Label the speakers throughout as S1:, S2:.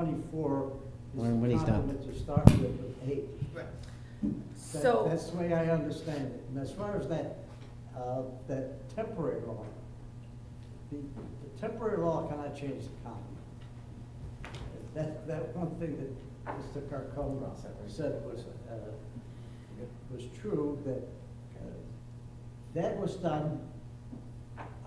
S1: twenty-four is
S2: Or when he's
S1: the
S2: done.
S1: complement to start with, with eight.
S3: Right.
S1: That-
S4: So,
S1: That's the way I understand it. And as far as that, uh, that temporary law, the, the temporary law cannot change the common. That, that one thing that Mr. Carcoma said was, uh, it was true that, uh, that was done,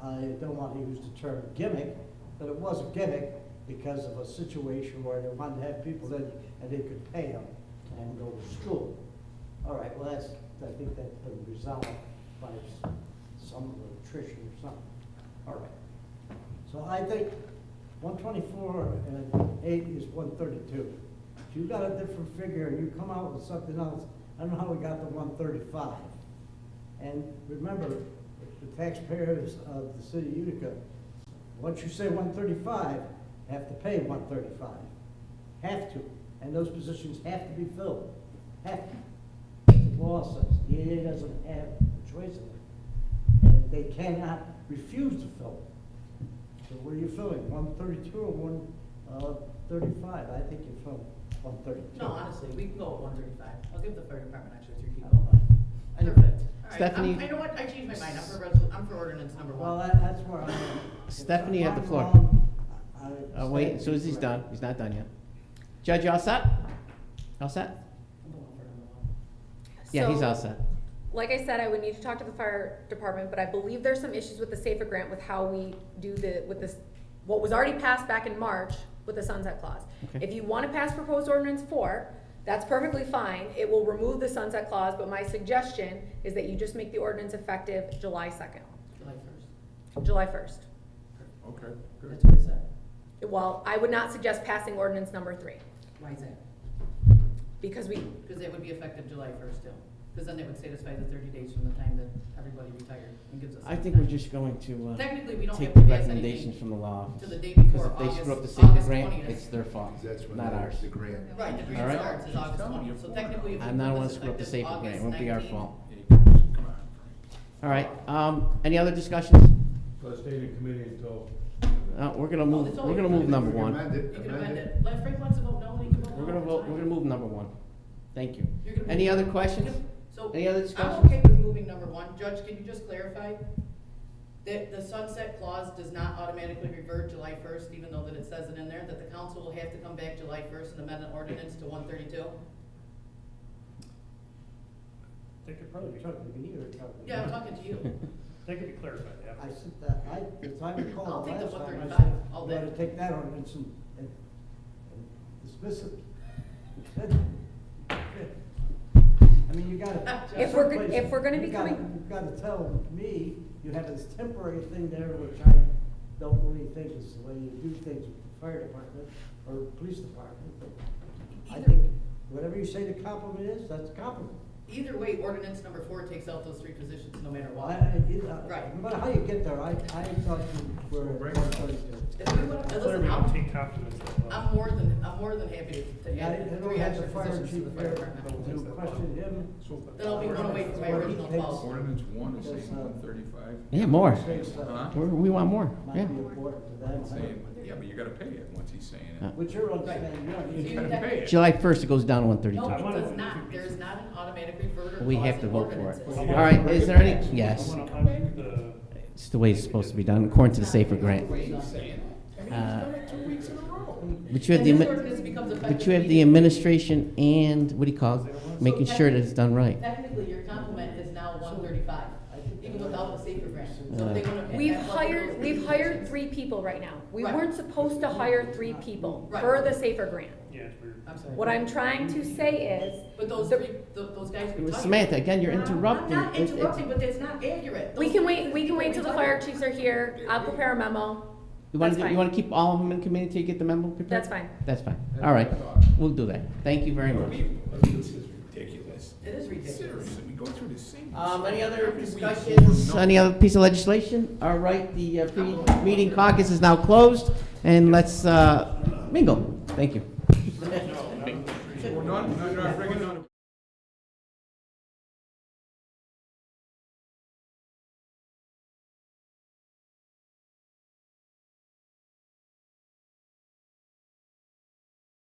S1: I don't want to use the term gimmick, but it was a gimmick because of a situation where they wanted to have people in and they could pay them and go to school. All right, well, that's, I think that's been resolved by s- some attrition or something. All right. So I think one twenty-four and eight is one thirty-two. If you got a different figure and you come out with something else, I don't know how we got to one thirty-five. And remember, the taxpayers of the city of Utica, once you say one thirty-five, have to pay one thirty-five. Have to, and those positions have to be filled, have to. The law says, the EA doesn't have a choice in it, and they cannot refuse to fill it. So what are you filling, one thirty-two or one, uh, thirty-five? I think you're filling one thirty-two.
S3: No, honestly, we can go at one thirty-five. I'll give the fire department an extra three people.
S1: I-
S3: Perfect. All right,
S2: Stephanie-
S3: I'm- I know what, I changed my mind. I'm for resol, I'm for ordinance number
S1: Well,
S3: one.
S1: that, that's where I'm. at.
S2: Stephanie had the
S1: If
S2: floor.
S1: I'm wrong, I- I-
S2: Uh, wait, so he's done, he's not done yet. Judge, you all set? All set?
S3: I'm going for number one.
S2: Yeah, he's
S4: so,
S2: all set.
S4: Like I said, I would need to talk to the fire department, but I believe there's some issues with the SAFER grant with how we do the, with this, what was already passed back in March with the sunset clause.
S2: Okay.
S4: If you wanna pass proposed ordinance four, that's perfectly fine, it will remove the sunset clause, but my suggestion is that you just make the ordinance effective July second,
S3: July first.
S4: July first.
S5: Okay, good.
S3: That's what I said.
S4: Well, I would not suggest passing ordinance number three,
S3: Why is that?
S4: because we,
S3: Because it would be effective July first still. Because then it would satisfy the thirty days from the time that everybody retired and gives us.
S2: I
S3: that
S2: think we're
S3: time.
S2: just going to, uh,
S3: Technically, we don't
S2: take
S3: have
S2: the
S3: to pass anything.
S2: recommendations from the law office.
S3: to the day
S2: Because
S3: before
S2: if they screw up the
S3: August-
S2: secret
S3: August
S2: grant,
S3: 20th.
S2: it's their fault,
S5: That's when
S2: not ours.
S5: the grant.
S3: Right, the
S2: All right.
S3: grant starts is August
S5: Tell me,
S3: twentieth,
S5: you're
S3: so
S5: four
S3: technically. if we
S2: I'm not
S3: put
S2: the one
S3: this
S2: screw up the
S3: effective
S2: safer grant, it
S3: August
S2: won't be our
S3: 19th,
S2: fault.
S5: Come on.
S2: All right, um, any other discussions?
S6: So it stayed in committee until,
S2: Uh, we're gonna move,
S3: it's
S2: we're gonna
S3: only-
S2: move number
S5: We can
S2: one.
S5: Amend it,
S3: You can amend it. Let Frank wants to vote no, he can vote no.
S2: We're gonna vote, we're gonna move number one. Thank you.
S3: You're gonna
S2: Any
S3: move-
S2: other questions?
S3: So.
S2: Any other
S3: I'm okay
S2: discussions?
S3: with moving number one. Judge, can you just clarify? That the sunset clause does not automatically revert July first, even though that it says it in there, that the council will have to come back July first and amend the ordinance to one thirty-two?
S7: They could
S1: Probably
S7: probably,
S1: took me either, probably.
S3: Yeah, I'm talking to you.
S7: they could be clarified, yeah.
S1: I said that, I, if I
S3: I'll
S1: recall,
S3: take the
S1: last time I
S3: 135.
S1: said,
S3: I'll
S1: we ought to
S3: bet.
S1: take that ordinance and, and and dismiss it. I mean, you gotta.
S3: If
S4: we're go-
S1: someplace-
S4: if we're gonna
S1: you
S4: be
S1: gotta-
S4: coming-
S1: You gotta tell me, you have this temporary thing there, which I don't really think is the way you do things with the fire department or police department. but I
S3: Either-
S1: think, whatever you say the compliment is, that's a compliment.
S3: Either way, ordinance number four takes out those three positions no matter
S1: Well, I,
S3: what.
S1: I, it- uh,
S3: Right.
S1: no matter how you get there, I, I thought you were
S5: Bring
S1: one
S5: it on.
S1: thirty-two.
S3: If we want,
S7: Clearly,
S3: listen,
S7: we don't
S3: I'm,
S7: take confidence in
S3: I'm more than, I'm more than happy to- to
S1: Yeah, I
S3: add
S1: don't
S3: three
S1: have the
S3: extra
S1: fire
S3: positions to
S1: chief
S3: the fire
S1: here,
S3: department.
S1: to question him.
S3: That'll be one away from my original
S5: but
S3: policy.
S5: Ordinance one is
S1: Yes,
S5: saying
S1: uh,
S5: one thirty-five.
S2: Yeah, more.
S5: Huh?
S2: We're, we want more, yeah.
S1: Might be important to them.
S5: Saying, yeah, but you gotta pay it once he's saying it.
S1: Which you're understanding, you don't
S3: So
S1: need
S3: you
S1: to-
S5: gotta
S3: have-
S5: pay it.
S2: July first, it goes down to one
S3: No,
S2: thirty-two.
S7: I
S3: it
S7: wanna
S3: does
S7: vote
S3: not,
S7: for
S3: there is
S7: pieces.
S3: not an automatic reverter.
S2: We
S3: clause
S2: have to
S3: in
S2: vote for it.
S3: ordinances.
S2: All right, is there any, yes,
S7: I wanna undo the,
S2: it's the way it's supposed to be done, according to the safer grant.
S5: I mean, he's
S2: Uh,
S5: done it two weeks in a row.
S2: But you have
S3: And
S2: the,
S3: this
S2: admi-
S3: ordinance becomes
S2: but
S3: effective
S2: you have the
S3: immediately.
S2: administration and, what do you call it, making sure that it's done right.
S3: Technically, your complement is now one thirty-five, even without the safer grant. So
S2: Uh,
S3: if they wanna-
S4: We've
S3: that's what those
S4: hired, we've hired
S3: positions-
S4: three people right now. We
S3: Right.
S4: weren't supposed to hire three people
S3: Right.
S4: per the SAFER grant.
S7: yeah, it's weird.
S3: I'm sorry.
S4: What I'm trying to say is,
S3: But those three, th- those guys. we talked
S2: Samantha,
S3: about-
S2: again, you're
S3: I'm-
S2: interrupting.
S3: I'm not
S2: It- it-
S3: interrupting, but that's not accurate.
S4: we
S3: Those
S4: can
S3: three
S4: wait, we can wait till the fire chiefs are here, I'll prepare a memo,
S2: You want
S4: That's
S2: to,
S4: fine.
S2: you want to keep all of them in committee till you get the memo prepared?
S4: that's fine.
S2: That's fine.
S5: That's
S2: All
S5: what I
S2: right,
S5: thought.
S2: we'll do that. Thank you very much.
S5: This is ridiculous.
S3: It is ridiculous.
S5: Seriously, we go through the same.
S2: Um, any
S5: mistake
S2: other
S5: every week.
S2: discussions,
S5: No.
S2: any other piece of legislation? All right, the uh, pre-meeting caucus is now closed, and let's uh, mingle. Thank you.
S5: Well, none, none, none, bring it on.